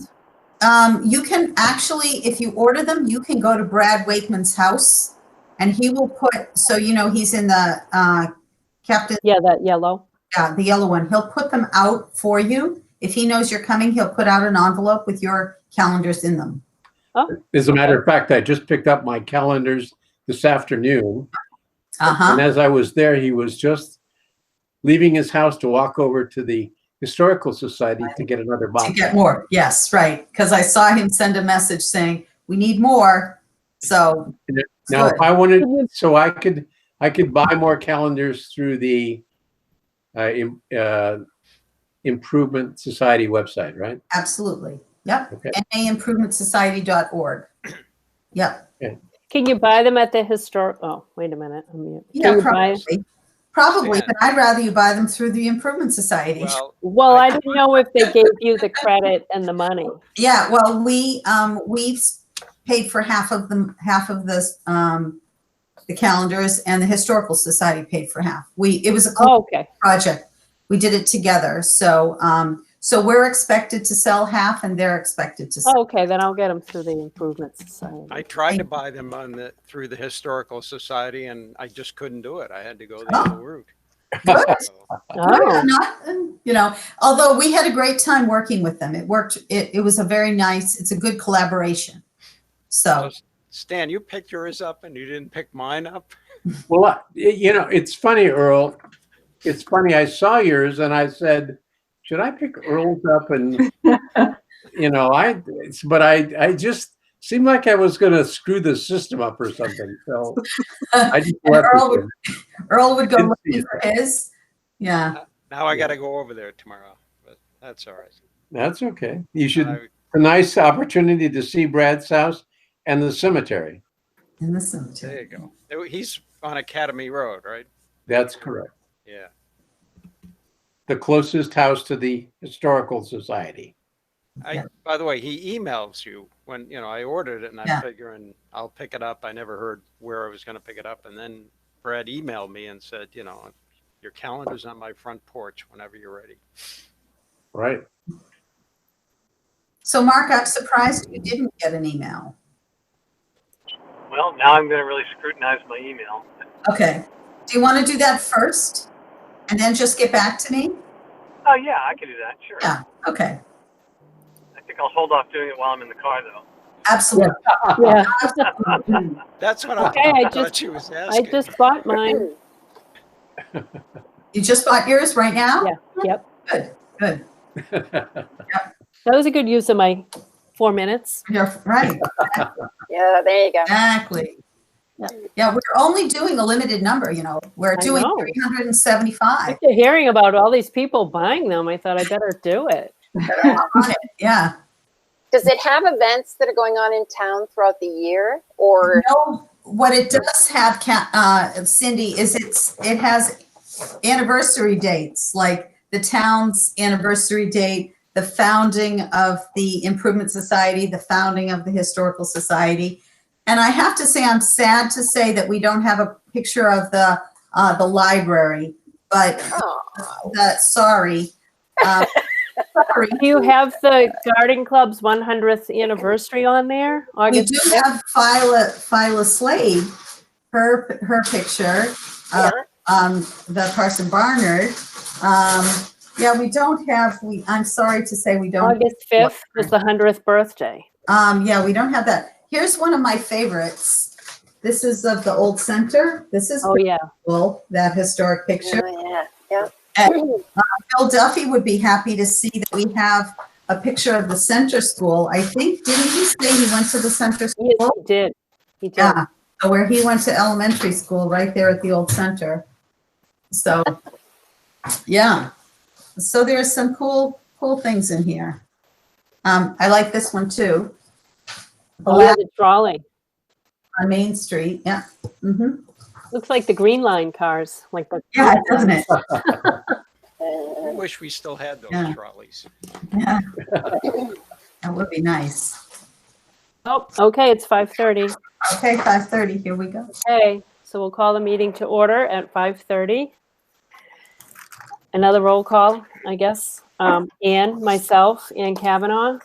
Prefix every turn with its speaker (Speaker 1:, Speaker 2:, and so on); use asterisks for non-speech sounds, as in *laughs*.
Speaker 1: Um, you can actually, if you order them, you can go to Brad Wakeman's house and he will put, so you know, he's in the, uh, Captain,
Speaker 2: Yeah, that yellow.
Speaker 1: yeah, the yellow one. He'll put them out for you. If he knows you're coming, he'll put out an envelope with your calendars in them.
Speaker 3: As a matter of fact, I just picked up my calendars this afternoon.
Speaker 1: Uh-huh.
Speaker 3: And as I was there, he was just leaving his house to walk over to the Historical Society to get another
Speaker 1: To
Speaker 3: box.
Speaker 1: get more, yes, right. Because I saw him send a message saying, we need more. So. it's
Speaker 3: Now, if
Speaker 1: good.
Speaker 3: I wanted, so I could, I could buy more calendars through the uh, im- uh, Improvement Society website, right?
Speaker 1: Absolutely. Yep.
Speaker 3: Okay.
Speaker 1: NAimprovementsociety.org. Yep.
Speaker 2: Can you buy them at the historic? Oh, wait a minute. I'm mute. Can
Speaker 1: Yeah,
Speaker 2: you buy-
Speaker 1: probably. Probably,
Speaker 4: Yeah.
Speaker 1: but I'd rather you buy them through the Improvement Society.
Speaker 4: Well,
Speaker 2: Well, I didn't know if they gave you the credit and the money.
Speaker 1: Yeah, well, we, um, we've s- paid for half of them, half of this, um, the calendars and the Historical Society paid for half. We, it was a
Speaker 2: Oh, okay.
Speaker 1: project. We did it together. So, um, so we're expected to sell half and they're expected to
Speaker 2: Oh,
Speaker 1: sell.
Speaker 2: Okay, then I'll get them through the improvement society.
Speaker 4: I tried to buy them on the, through the Historical Society and I just couldn't do it. I had to go the other route. So,
Speaker 1: We're
Speaker 2: Oh,
Speaker 1: Not, um, you know, although we had a great time working with them. It worked, it, it was a very nice, it's a good collaboration. So,
Speaker 4: Stan, you picked yours up and you didn't pick mine up?
Speaker 3: Well, I- you know, it's funny, Earl. It's funny. I saw yours and I said, should I pick Earl's up?
Speaker 1: *laughs*
Speaker 3: And, you know, I, it's, but I, I just seemed like I was going to screw the system up or something. So I just
Speaker 1: *laughs* And
Speaker 3: left.
Speaker 1: Earl
Speaker 3: it
Speaker 1: would- Earl would go
Speaker 3: Didn't see
Speaker 1: looking for his. Yeah.
Speaker 4: Now I gotta go over there tomorrow, but that's all right.
Speaker 3: there. That's okay. You should,
Speaker 4: I-
Speaker 3: a nice opportunity to see Brad's house and the cemetery.
Speaker 1: In the cemetery.
Speaker 4: There you go. Oh, He's on Academy Road, right?
Speaker 3: That's correct.
Speaker 4: Yeah.
Speaker 3: The closest house to the Historical Society.
Speaker 4: I,
Speaker 1: Yeah.
Speaker 4: by the way, he emails you when, you know, I ordered it and
Speaker 1: Yeah.
Speaker 4: I'm figuring I'll pick it up. I never heard where I was gonna pick it up. And then Brad emailed me and said, you know, your calendar's on my front porch whenever you're ready.
Speaker 3: Right. *laughs*
Speaker 1: So Mark, I'm surprised you didn't get an email.
Speaker 5: Well, now I'm going to really scrutinize my email.
Speaker 1: Okay. Do you want to do that first? And then just get back to me?
Speaker 5: Oh, yeah, I could do that, sure.
Speaker 1: Yeah. Okay.
Speaker 5: I think I'll hold off doing it while I'm in the car, though.
Speaker 1: Absolutely.
Speaker 2: yeah.
Speaker 4: That's what I
Speaker 2: Okay, I
Speaker 4: thought
Speaker 2: just-
Speaker 4: she was
Speaker 2: I
Speaker 4: asking.
Speaker 2: just bought mine.
Speaker 1: You just bought yours right now?
Speaker 2: Yeah. Yep.
Speaker 1: Good, good.
Speaker 2: That was a good use of my four minutes.
Speaker 1: You're right.
Speaker 6: Yeah, there you go.
Speaker 1: Exactly. Yeah, we're only doing a limited number, you know, we're
Speaker 2: I
Speaker 1: doing
Speaker 2: know.
Speaker 1: 375.
Speaker 2: After hearing about all these people buying them, I thought I better do it.
Speaker 1: Yeah.
Speaker 6: Does it have events that are going on in town throughout the year or?
Speaker 1: No, what it does have, Ca- uh, Cindy, is it's, it has anniversary dates, like the town's anniversary date, the founding of the Improvement Society, the founding of the Historical Society. And I have to say, I'm sad to say that we don't have a picture of the, uh, the library, but
Speaker 6: Oh,
Speaker 1: the, sorry. Um, Sorry.
Speaker 2: Do you have the Garden Club's 100th anniversary on there?
Speaker 1: We
Speaker 2: August
Speaker 1: do have Phyla, Phyla Slade, her, her picture, uh,
Speaker 6: yeah.
Speaker 1: um, the Parson Barnard. Um, yeah, we don't have, we, I'm sorry to say we don't,
Speaker 2: August 5th was the 100th birthday.
Speaker 1: um, yeah, we don't have that. Here's one of my favorites. This is of the old center. This is
Speaker 2: Oh, yeah.
Speaker 1: cool, that historic picture.
Speaker 6: Oh, yeah,
Speaker 1: Bill Duffy would be happy to see that we have a picture of the center school. I think, didn't he say he went to the center
Speaker 2: Yes,
Speaker 1: school?
Speaker 2: he did. He did.
Speaker 1: Yeah, Um, so where he went to elementary school, right there at the old center. So, yeah. So there are some cool, cool things in here. Um, I like this one too.
Speaker 2: Oh, yeah,
Speaker 1: Alaska
Speaker 2: the trolley.
Speaker 1: on Main Street, yeah. Mhm.
Speaker 2: Looks like the Green Line cars, like the.
Speaker 1: Yeah, doesn't it?
Speaker 4: I
Speaker 6: yeah.
Speaker 4: wish we still had
Speaker 1: Yeah.
Speaker 4: those trolleys.
Speaker 1: Yeah. That would be nice.
Speaker 2: Oh, okay, it's 5:30.
Speaker 1: Okay, five thirty, here we go.
Speaker 2: Okay, so we'll call the meeting to order at 5:30. Another roll call, I guess. Um, Ann, myself, Ann Kavanaugh,